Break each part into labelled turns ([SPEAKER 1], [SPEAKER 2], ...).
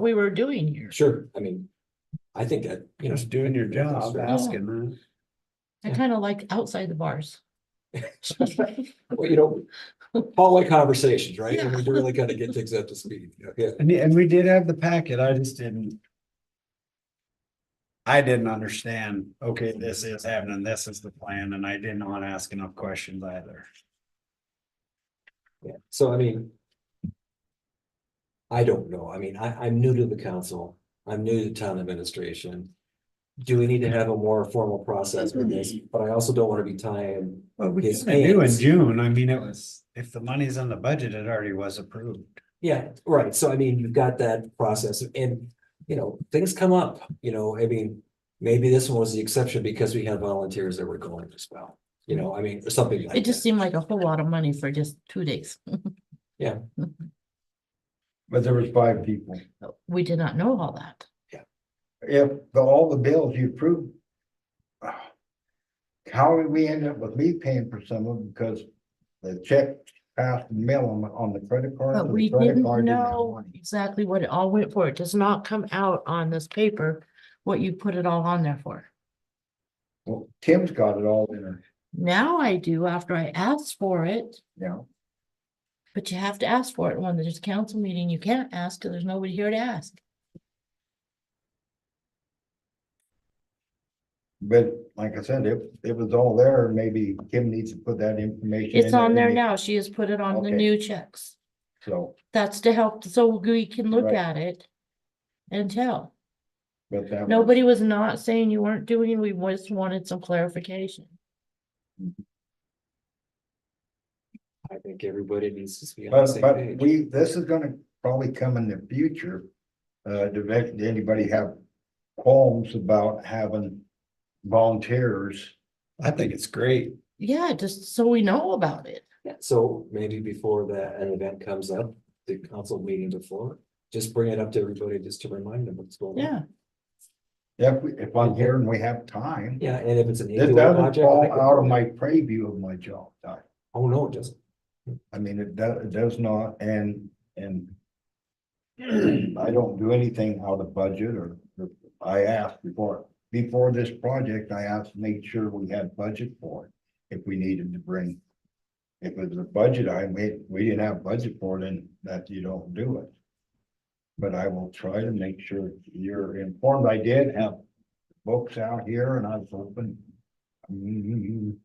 [SPEAKER 1] we were doing here.
[SPEAKER 2] Sure, I mean, I think that, you know.
[SPEAKER 3] Just doing your job, asking, huh?
[SPEAKER 1] I kind of like outside the bars.
[SPEAKER 2] Well, you know, hallway conversations, right? And we really gotta get things up to speed, you know, yeah.
[SPEAKER 3] And, and we did have the packet, I just didn't. I didn't understand, okay, this is happening, this is the plan, and I didn't want to ask enough questions either.
[SPEAKER 2] Yeah, so I mean. I don't know, I mean, I, I'm new to the council, I'm new to town administration. Do we need to have a more formal process for this? But I also don't wanna be tying,
[SPEAKER 3] Well, we
[SPEAKER 2] His
[SPEAKER 3] kinda knew in
[SPEAKER 2] hands.
[SPEAKER 3] June, I mean, it was, if the money's in the budget, it already was approved.
[SPEAKER 2] yeah, right, so I mean, you've got that process and, you know, things come up, you know, I mean. Maybe this one was the exception because we had volunteers that were going as well, you know, I mean, or something like
[SPEAKER 1] It just
[SPEAKER 2] that.
[SPEAKER 1] seemed like a whole lot of money for just two days.
[SPEAKER 3] But there was five people.
[SPEAKER 1] We did not know all that.
[SPEAKER 4] if the, all the bills you approved. ah, How did we end up with me paying for some of them because the check passed the mail on, on the credit card?
[SPEAKER 1] But
[SPEAKER 4] so the
[SPEAKER 1] we
[SPEAKER 4] credit
[SPEAKER 1] didn't
[SPEAKER 4] card have
[SPEAKER 1] know
[SPEAKER 4] money.
[SPEAKER 1] exactly what it all went for. It does not come out on this paper what you put it all on there for.
[SPEAKER 4] Well, Tim's got it all in her,
[SPEAKER 1] Now I do after I asked for it,
[SPEAKER 4] you know,
[SPEAKER 1] but you have to ask for it. When there's a council meeting, you can't ask because there's nobody here to ask.
[SPEAKER 4] but like I said, it, it was all there, maybe Kim needs to put that information.
[SPEAKER 1] It's
[SPEAKER 4] in
[SPEAKER 1] on there
[SPEAKER 4] and
[SPEAKER 1] now. She has put it on the
[SPEAKER 4] Okay.
[SPEAKER 1] new checks.
[SPEAKER 4] So,
[SPEAKER 1] That's to help, so we can look
[SPEAKER 4] Right.
[SPEAKER 1] at it and tell.
[SPEAKER 4] but that. was-
[SPEAKER 1] Nobody was not saying you weren't doing, we just wanted some clarification.
[SPEAKER 2] I think everybody needs to be on the
[SPEAKER 4] But,
[SPEAKER 2] same
[SPEAKER 4] but
[SPEAKER 2] page.
[SPEAKER 4] we, this is gonna probably come in the future. Uh, do they- do anybody have qualms about having volunteers?
[SPEAKER 3] I think it's great.
[SPEAKER 1] Yeah, just so we know about it.
[SPEAKER 2] Yeah, So maybe before that, an event comes up, the council meeting before, just bring it up to everybody just to remind them what's going on.
[SPEAKER 1] Yeah,
[SPEAKER 4] If, we- if I'm here and we have time,
[SPEAKER 2] Yeah, and if it's an.
[SPEAKER 4] this
[SPEAKER 2] annual
[SPEAKER 4] doesn't
[SPEAKER 2] project,
[SPEAKER 4] fall
[SPEAKER 2] I could-
[SPEAKER 4] out of my preview of my job. I-
[SPEAKER 2] Oh, no, it doesn't.
[SPEAKER 4] I mean, it does, it does not, and, and I don't do anything out of budget or, or- I asked before, before this project, I asked to make sure we had budget for it. If we needed to bring, if it was a budget, I made, we didn't have budget for it, then that you don't do it. But I will try to make sure you're informed. I did have books out here and I was hoping. mm,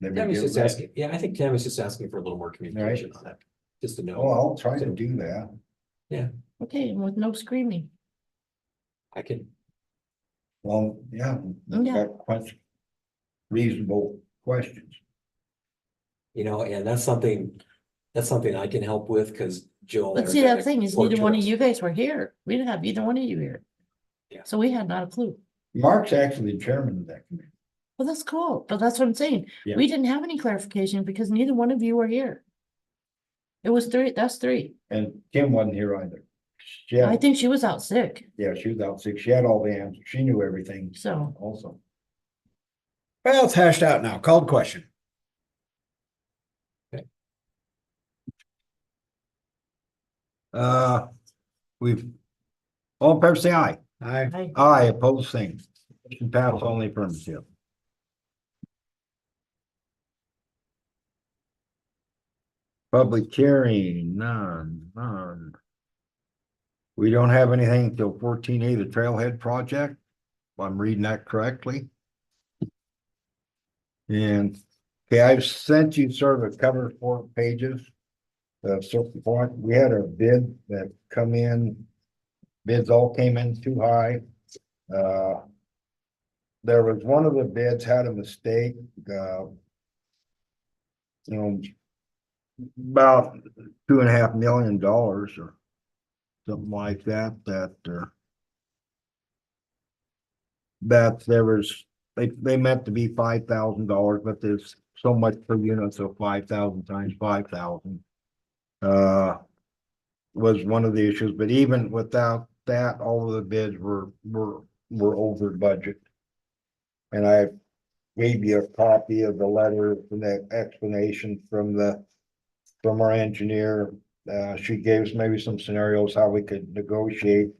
[SPEAKER 4] they would
[SPEAKER 2] Tammy's
[SPEAKER 4] get
[SPEAKER 2] just
[SPEAKER 4] read.
[SPEAKER 2] asking, yeah, I think Tammy's just asking for a little more communication on that, just to
[SPEAKER 4] Well,
[SPEAKER 2] know,
[SPEAKER 4] Oh, I'll try to do that.
[SPEAKER 1] okay, and with no screaming.
[SPEAKER 2] I can,
[SPEAKER 4] Well, yeah. we've
[SPEAKER 1] Yeah.
[SPEAKER 4] got quest- Reasonable questions.
[SPEAKER 2] you know, and that's something, that's something I can help with, because Joel.
[SPEAKER 1] But see, that thing is neither one of you guys were here. We didn't have either one of you here.
[SPEAKER 2] Yeah.
[SPEAKER 1] So we had not a clue.
[SPEAKER 4] Mark's actually chairman of that committee.
[SPEAKER 1] Well, that's cool, but that's what I'm saying.
[SPEAKER 4] Yeah.
[SPEAKER 1] We didn't have any clarification because neither one of you were here. It was three, that's three.
[SPEAKER 4] and Kim wasn't here either. She
[SPEAKER 1] I
[SPEAKER 4] had,
[SPEAKER 1] think she was out sick,
[SPEAKER 4] yeah, she was out sick. She had all the answers. She knew everything
[SPEAKER 1] so.
[SPEAKER 4] also.
[SPEAKER 3] Well, it's hashed out now, called question.
[SPEAKER 2] Okay.
[SPEAKER 4] Uh, we've, all in favor, say aye. Aye.
[SPEAKER 1] I-
[SPEAKER 4] Aye, opposed, same. Motion Pass only affirmative. Public hearing, none, none. We don't have anything till fourteen A, the Trailhead Project, if I'm reading that correctly. And, okay, I've sent you sort of a cover four pages. Uh, so far, we had a bid that come in, bids all came in too high. Uh, There was one of the bids had a mistake, uh. You know. About two and a half million dollars or something like that, that, uh. That there was, they, they meant to be five thousand dollars, but there's so much per unit, so five thousand times five thousand. Uh, was one of the issues, but even without that, all of the bids were, were, were over budget. And I gave you a copy of the letter, from the explanation from the, from our engineer Uh, she gave us maybe some scenarios how we could negotiate